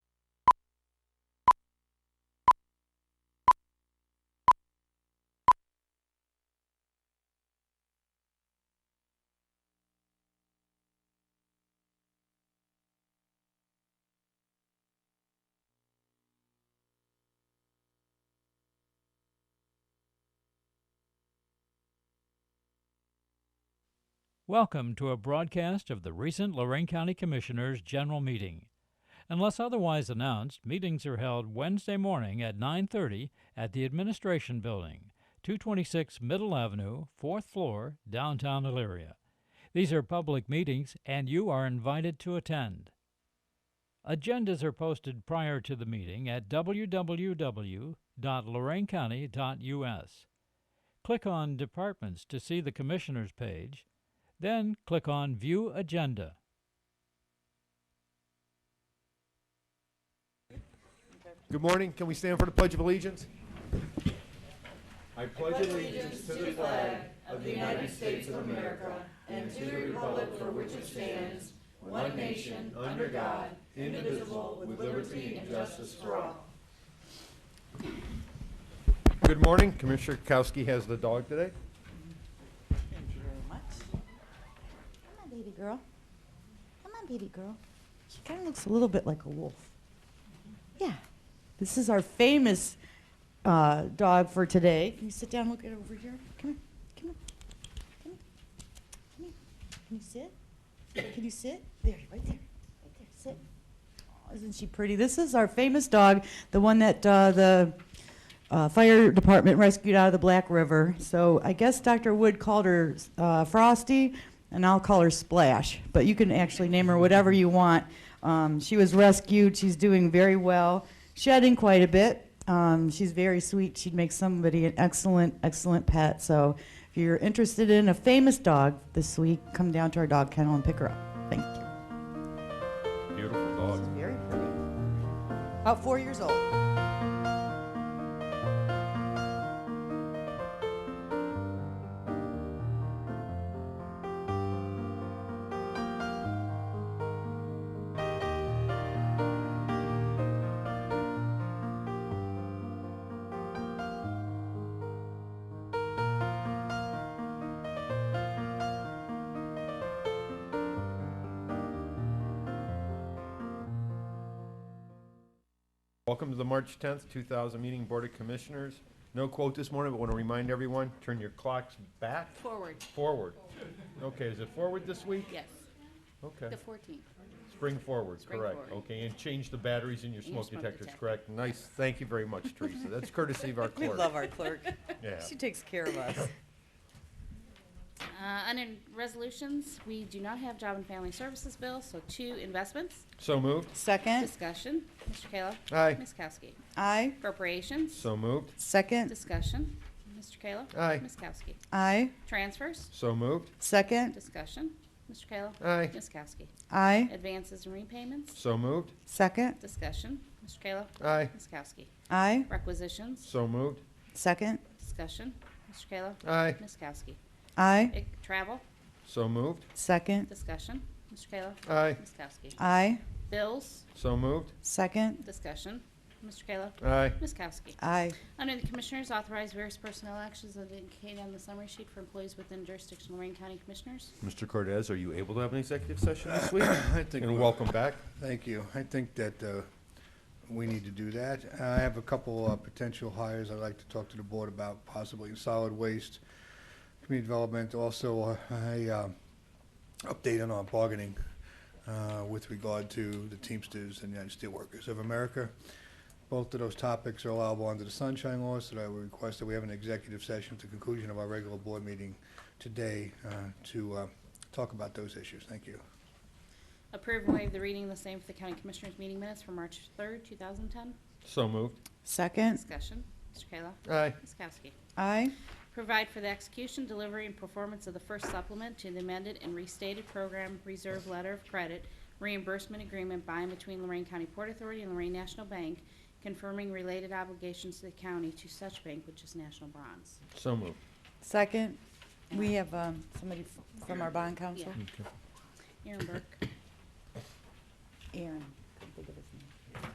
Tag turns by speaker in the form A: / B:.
A: Welcome to a broadcast of the recent Lorraine County Commissioners' General Meeting. Unless otherwise announced, meetings are held Wednesday morning at 9:30 at the Administration Building, 226 Middle Avenue, 4th floor, downtown Elyria. These are public meetings and you are invited to attend. Agendas are posted prior to the meeting at www.loraincounty.us. Click on Departments to see the Commissioners page, then click on View Agenda.
B: Good morning. Can we stand for the Pledge of Allegiance? Good morning. Commissioner Kowski has the dog today.
C: Thank you very much.
D: Come on, baby girl. Come on, baby girl. She kind of looks a little bit like a wolf. Yeah. This is our famous uh, dog for today. Can you sit down? Look at over here. Come here. Come here. Come here. Come here. Can you sit? Can you sit? There, right there. Right there. Sit. Aw, isn't she pretty? This is our famous dog, the one that uh, the uh, fire department rescued out of the Black River. So I guess Dr. Wood called her uh, Frosty, and I'll call her Splash. But you can actually name her whatever you want. Um, she was rescued. She's doing very well, shedding quite a bit. Um, she's very sweet. She'd make somebody an excellent, excellent pet. So if you're interested in a famous dog this week, come down to our dog kennel and pick her up. Thank you.
B: Beautiful dog.
D: She's very pretty. About four years old.
B: Welcome to the March 10th, 2000 meeting, Board of Commissioners. No quote this morning, but want to remind everyone, turn your clocks back,
E: Forward,
B: forward. Okay, is it forward this week?
E: yes,
B: Okay.
E: the 14th.
B: Spring forward,
E: Spring
B: correct.
E: forward.
B: Okay, and change the batteries in your
E: your
B: smoke
E: smoke
B: detectors,
E: detector.
B: correct? Nice. Thank you very much, Teresa. That's courtesy of our
C: We
B: clerk.
C: love our clerk.
B: Yeah.
C: She takes care of us.
E: Uh, Under resolutions, we do not have job and family services bill, so two investments.
B: So moved.
C: Second,
E: Discussion, Mr. Kayla.
B: Eh. Aye.
E: Ms. Kowski.
C: aye.
E: Appropriations,
B: So moved.
C: Second,
E: discussion, Mr. Kayla.
B: Aye.
E: Ms. Kowski.
C: aye.
E: Transfers,
B: So moved.
C: Second,
E: discussion, Mr. Kayla.
B: Aye.
E: Ms. Kowski.
C: aye.
E: Advances and repayments,
B: So moved.
C: Second,
E: discussion, Mr. Kayla.
B: Aye.
E: Ms. Kowski.
C: aye.
E: Requisitions,
B: So moved.
C: Second,
E: discussion, Mr. Kayla.
B: Aye.
E: Ms. Kowski.
C: aye.
E: Ec- Travel,
B: So moved.
C: Second,
E: discussion, Mr. Kayla.
B: Aye.
E: Ms. Kowski.
C: aye.
E: Bills,
B: So moved.
C: Second,
E: Discussion. Mr. Kayla.
B: Aye.
E: Ms. Kowski.
C: aye.
E: Under the Commissioners, authorize various personnel actions as indicated on the summary sheet for employees within jurisdiction of Lorraine County Commissioners.
B: Mr. Cortez, are you able to have an executive session this week?
F: I think,
B: And
F: we-
B: welcome back.
F: thank you. I think that uh, we need to do that. I have a couple uh, potential hires I'd like to talk to the board about, possibly in solid waste, community development, also uh, a uh, update on our bargaining uh, with regard to the Teamsters and United Steelworkers of America. Both of those topics are allowable under the Sunshine Law, so I would request that we have an executive session at the conclusion of our regular board meeting today uh, to uh, talk about those issues. Thank you.
E: Approve and waive the reading of the same for the County Commissioners meeting minutes for March 3rd, 2010.
B: So moved.
C: Second,
E: Discussion. Mr. Kayla.
B: Aye.
E: Ms. Kowski.
C: aye.
E: Provide for the execution, delivery, and performance of the first supplement to the amended and restated program reserve letter of credit reimbursement agreement by and between Lorraine County Port Authority and Lorraine National Bank, confirming related obligations to the county to such bank, which is National Bronze.
B: So moved.
C: Second, we have um, somebody f- from our bond council.
E: Yeah. Aaron Burke.
C: Aaron. couldn't think of his